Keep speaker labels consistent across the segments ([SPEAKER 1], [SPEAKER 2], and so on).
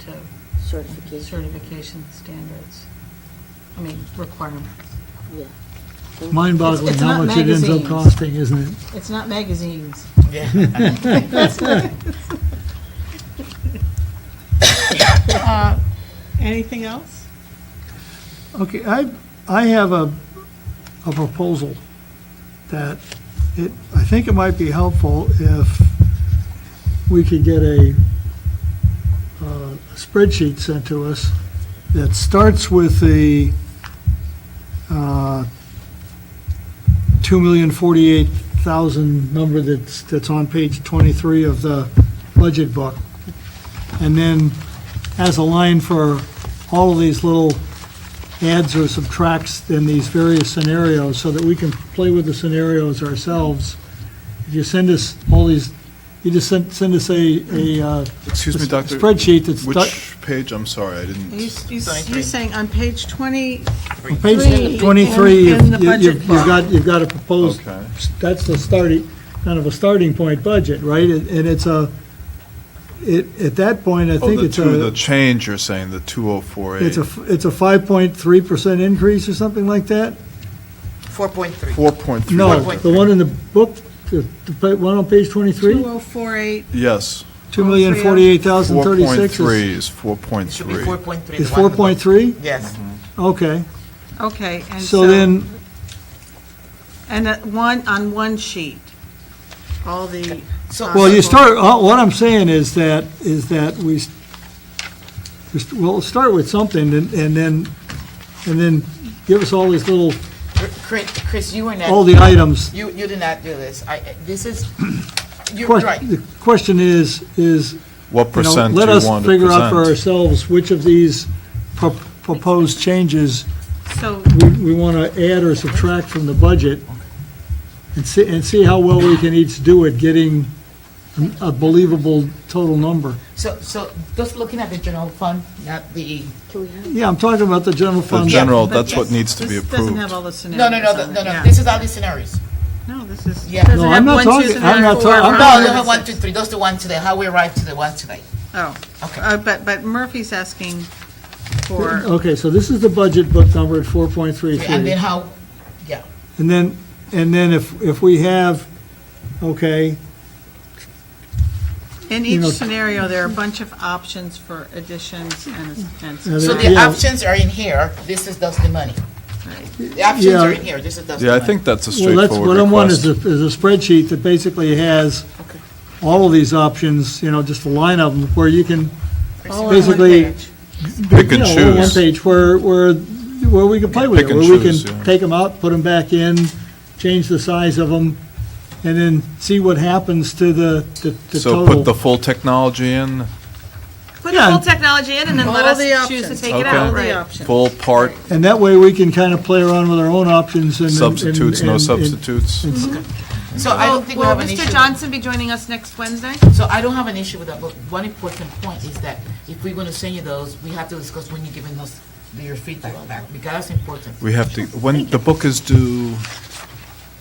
[SPEAKER 1] to
[SPEAKER 2] certification,
[SPEAKER 1] certification standards, I mean, requirements.
[SPEAKER 2] yeah.
[SPEAKER 3] Mind-boggling
[SPEAKER 1] It's- it's
[SPEAKER 3] how
[SPEAKER 1] not
[SPEAKER 3] much it ends up
[SPEAKER 1] magazines.
[SPEAKER 3] costing, isn't it?
[SPEAKER 1] It's not magazines.
[SPEAKER 4] Uh, Anything else?
[SPEAKER 3] Okay, I, I have a, a proposal that it, I think it might be helpful if we could get a uh, spreadsheet sent to us that starts with the uh, 2,048,000 number that's, that's on page 23 of the budget book. And then has a line for all of these little adds or subtracts in these various scenarios so that we can play with the scenarios ourselves. If you send us all these, you just send, send us a, a. uh,
[SPEAKER 5] Excuse me,
[SPEAKER 3] s-
[SPEAKER 5] Doctor.
[SPEAKER 3] Spreadsheet that's. du-
[SPEAKER 5] Which page? I'm sorry, I
[SPEAKER 4] Are you-
[SPEAKER 5] didn't.
[SPEAKER 4] you- You're saying on page 20,
[SPEAKER 3] On
[SPEAKER 4] Three.
[SPEAKER 3] Page 23,
[SPEAKER 4] In- in the
[SPEAKER 3] you've, you've-
[SPEAKER 4] budget
[SPEAKER 3] you've got, you've got a proposed,
[SPEAKER 5] Okay.
[SPEAKER 3] that's the starting, kind of a starting point budget, right? And and it's a, it, at that point, I
[SPEAKER 5] Oh,
[SPEAKER 3] think
[SPEAKER 5] the
[SPEAKER 3] it's
[SPEAKER 5] two, the
[SPEAKER 3] a,
[SPEAKER 5] change, you're saying, the 2048.
[SPEAKER 3] it's a, f- it's a 5.3% increase or something like that?
[SPEAKER 6] 4.3.
[SPEAKER 5] 4.3.
[SPEAKER 3] No,
[SPEAKER 6] Four point
[SPEAKER 3] the one in the book, the, the pa- one on page 23,
[SPEAKER 4] 2048,
[SPEAKER 5] Yes, 4.3
[SPEAKER 3] 2,048,036
[SPEAKER 5] is
[SPEAKER 6] It should be
[SPEAKER 5] 4.3.
[SPEAKER 6] 4.3.
[SPEAKER 3] is, is
[SPEAKER 6] the one-
[SPEAKER 3] 4.3?
[SPEAKER 6] Yes.
[SPEAKER 3] Okay,
[SPEAKER 4] okay, and so...
[SPEAKER 3] so then,
[SPEAKER 4] And that one, on one sheet, all the...
[SPEAKER 6] So-
[SPEAKER 4] uh,
[SPEAKER 3] Well, you
[SPEAKER 4] people-
[SPEAKER 3] start, uh, what I'm saying is that, is that we, s- just- we'll start with something and and then, and then give us all these little,
[SPEAKER 6] Chris, Chris, you were not.
[SPEAKER 3] all the items.
[SPEAKER 6] You, you did not do this. I, this is, you're
[SPEAKER 3] Quest-
[SPEAKER 6] right.
[SPEAKER 3] The question is, is,
[SPEAKER 5] What
[SPEAKER 3] you know,
[SPEAKER 5] percent do
[SPEAKER 3] let
[SPEAKER 5] you
[SPEAKER 3] us
[SPEAKER 5] want to
[SPEAKER 3] figure out for
[SPEAKER 5] present?
[SPEAKER 3] ourselves which of these pro- proposed changes
[SPEAKER 4] So,
[SPEAKER 3] we, we want to add or subtract from the budget and see, and see how well we can each do at getting a- a believable total number.
[SPEAKER 6] So, so just looking at the general fund, not the,
[SPEAKER 2] Can we have
[SPEAKER 3] Yeah, I'm talking about the general
[SPEAKER 5] The
[SPEAKER 3] fund.
[SPEAKER 5] general,
[SPEAKER 4] but
[SPEAKER 5] that's what
[SPEAKER 4] yes,
[SPEAKER 5] needs to be
[SPEAKER 4] This doesn't have
[SPEAKER 5] approved.
[SPEAKER 4] all the scenarios
[SPEAKER 6] no, no, no,
[SPEAKER 4] on
[SPEAKER 6] the-
[SPEAKER 4] it,
[SPEAKER 6] no, no.
[SPEAKER 4] yeah.
[SPEAKER 6] This is all the scenarios.
[SPEAKER 4] No, this is,
[SPEAKER 6] Yeah.
[SPEAKER 4] it doesn't
[SPEAKER 3] No, I'm
[SPEAKER 4] have
[SPEAKER 3] not
[SPEAKER 4] one,
[SPEAKER 3] talking-
[SPEAKER 4] two, three,
[SPEAKER 3] I'm not
[SPEAKER 4] four,
[SPEAKER 3] talking- I'm
[SPEAKER 4] five,
[SPEAKER 6] No,
[SPEAKER 3] not-
[SPEAKER 6] you
[SPEAKER 4] six.
[SPEAKER 6] have one, two, three. Those the one today, how we arrived to the one today.
[SPEAKER 4] Oh,
[SPEAKER 6] Okay.
[SPEAKER 4] uh, but, but Murphy's asking for,
[SPEAKER 3] Okay, so this is the budget book number at
[SPEAKER 6] And then
[SPEAKER 3] 4.33.
[SPEAKER 6] how,
[SPEAKER 3] And then, and then if, if we have, okay,
[SPEAKER 4] in
[SPEAKER 3] You
[SPEAKER 4] each
[SPEAKER 3] know-
[SPEAKER 4] scenario, there are a bunch of options for additions and, and
[SPEAKER 3] Yeah,
[SPEAKER 6] so the
[SPEAKER 3] Yeah.
[SPEAKER 6] options are in here. This is just the money.
[SPEAKER 4] Right.
[SPEAKER 6] The options are
[SPEAKER 3] Yeah.
[SPEAKER 6] in here. This is just the
[SPEAKER 5] Yeah, I
[SPEAKER 6] money.
[SPEAKER 5] think that's a
[SPEAKER 3] well, that's, what
[SPEAKER 5] straightforward
[SPEAKER 3] I'm wanting is
[SPEAKER 5] request.
[SPEAKER 3] a, is a spreadsheet that basically has all of these options, you know, just a line of them where you can,
[SPEAKER 4] all on one
[SPEAKER 3] Basically-
[SPEAKER 4] page.
[SPEAKER 5] Pick
[SPEAKER 3] you
[SPEAKER 5] and
[SPEAKER 3] know, on one
[SPEAKER 5] choose.
[SPEAKER 3] page where, where, where we can play with
[SPEAKER 5] Pick
[SPEAKER 3] it.
[SPEAKER 5] and
[SPEAKER 3] Where we
[SPEAKER 5] choose,
[SPEAKER 3] can
[SPEAKER 5] yeah.
[SPEAKER 3] take them out, put them back in, change the size of them, and then see what happens to the, the the
[SPEAKER 5] So
[SPEAKER 3] total.
[SPEAKER 5] put the full technology in,
[SPEAKER 7] Put the
[SPEAKER 3] Yeah.
[SPEAKER 7] full technology in and then let
[SPEAKER 4] All the
[SPEAKER 7] us choose to
[SPEAKER 4] options.
[SPEAKER 7] take it
[SPEAKER 5] Okay.
[SPEAKER 7] out.
[SPEAKER 4] All the
[SPEAKER 7] Right.
[SPEAKER 4] options.
[SPEAKER 5] full part,
[SPEAKER 3] And that way, we can kind of play around with our own options and. and-
[SPEAKER 5] substitutes, no
[SPEAKER 3] and- and-
[SPEAKER 5] substitutes.
[SPEAKER 6] So I
[SPEAKER 7] Will
[SPEAKER 6] don't think we
[SPEAKER 7] Oh, will
[SPEAKER 6] have an issue.
[SPEAKER 7] Mr. Johnson be joining us next Wednesday?
[SPEAKER 6] So I don't have an issue with that, but one important point is that if we're gonna send you those, we have to discuss when you're giving us your feedback back, because that's important.
[SPEAKER 5] We have to, when, the book is due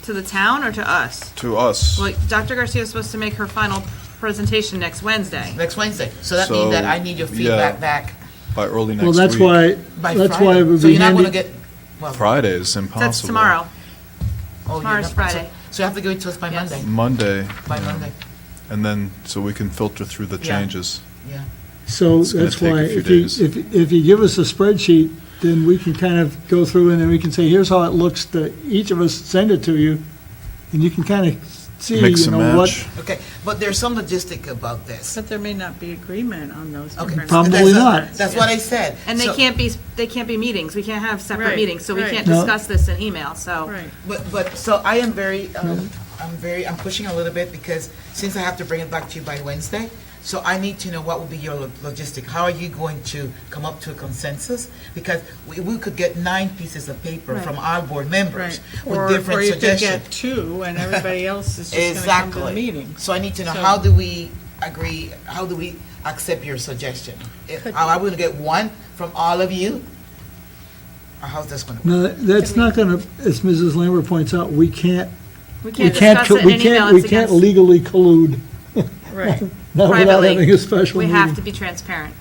[SPEAKER 7] To the town or to us?
[SPEAKER 5] to us.
[SPEAKER 7] Well, Dr. Garcia is supposed to make her final presentation next Wednesday.
[SPEAKER 6] Next Wednesday, so that means that I need your
[SPEAKER 5] So, yeah.
[SPEAKER 6] feedback back
[SPEAKER 5] by early next
[SPEAKER 3] Well,
[SPEAKER 5] week.
[SPEAKER 3] that's why,
[SPEAKER 6] by
[SPEAKER 3] that's why it
[SPEAKER 6] Friday.
[SPEAKER 3] would
[SPEAKER 6] So
[SPEAKER 3] be
[SPEAKER 6] you're not gonna
[SPEAKER 3] handy.
[SPEAKER 6] get, well.
[SPEAKER 5] Friday is impossible.
[SPEAKER 7] That's tomorrow.
[SPEAKER 6] oh, you're
[SPEAKER 7] tomorrow's
[SPEAKER 6] not- so-
[SPEAKER 7] Friday.
[SPEAKER 6] So you have to give it to us by
[SPEAKER 7] Yes.
[SPEAKER 6] Monday,
[SPEAKER 5] Monday.
[SPEAKER 6] by
[SPEAKER 5] yeah.
[SPEAKER 6] Monday,
[SPEAKER 5] And then, so we can filter through the
[SPEAKER 6] Yeah.
[SPEAKER 5] changes.
[SPEAKER 6] yeah.
[SPEAKER 3] So
[SPEAKER 5] It's gonna
[SPEAKER 3] that's
[SPEAKER 5] take a
[SPEAKER 3] why,
[SPEAKER 5] few
[SPEAKER 3] if you,
[SPEAKER 5] days.
[SPEAKER 3] if, if you give us a spreadsheet, then we can kind of go through and then we can say, here's how it looks to, each of us send it to you. And you can kind of see,
[SPEAKER 5] Mix
[SPEAKER 3] you
[SPEAKER 5] and
[SPEAKER 3] know,
[SPEAKER 5] match.
[SPEAKER 3] what,
[SPEAKER 6] Okay, but there's some logistic about this.
[SPEAKER 4] But there may not be agreement on those
[SPEAKER 6] Okay.
[SPEAKER 4] different...
[SPEAKER 3] Probably
[SPEAKER 6] That's- uh,
[SPEAKER 3] not.
[SPEAKER 6] That's what I said.
[SPEAKER 7] And they
[SPEAKER 6] So-
[SPEAKER 7] can't be, they can't be meetings. We can't have separate
[SPEAKER 4] Right,
[SPEAKER 7] meetings, so we
[SPEAKER 4] right.
[SPEAKER 7] can't
[SPEAKER 3] No.
[SPEAKER 7] discuss this in email, so.
[SPEAKER 4] Right.
[SPEAKER 6] But, but, so I am very, um, I'm very, I'm pushing a little bit because since I have to bring it back to you by Wednesday, so I need to know what will be your lo- logistic. How are you going to come up to a consensus? Because we, we could get nine pieces of paper from our board members
[SPEAKER 4] Right,
[SPEAKER 6] with
[SPEAKER 4] or, or
[SPEAKER 6] different
[SPEAKER 4] you could
[SPEAKER 6] suggestions.
[SPEAKER 4] get two, and everybody else is just gonna come to the
[SPEAKER 6] Exactly.
[SPEAKER 4] meeting.
[SPEAKER 6] So I need to know,
[SPEAKER 4] So-
[SPEAKER 6] how do we agree, how do we accept your suggestion? If- Am I going to get one from all of you? Or how's this going to work?
[SPEAKER 3] no, that's not gonna, as Mrs. Lambert points out, we can't,
[SPEAKER 7] We
[SPEAKER 3] we
[SPEAKER 7] can't
[SPEAKER 3] can't,
[SPEAKER 7] discuss
[SPEAKER 3] co-
[SPEAKER 7] it in
[SPEAKER 3] we
[SPEAKER 7] an email.
[SPEAKER 3] can't, we
[SPEAKER 7] It's
[SPEAKER 3] can't
[SPEAKER 7] against-
[SPEAKER 3] legally collude,
[SPEAKER 4] Right.
[SPEAKER 3] not without
[SPEAKER 7] Privately,
[SPEAKER 3] having a special
[SPEAKER 7] We
[SPEAKER 3] meeting.
[SPEAKER 7] have to be transparent.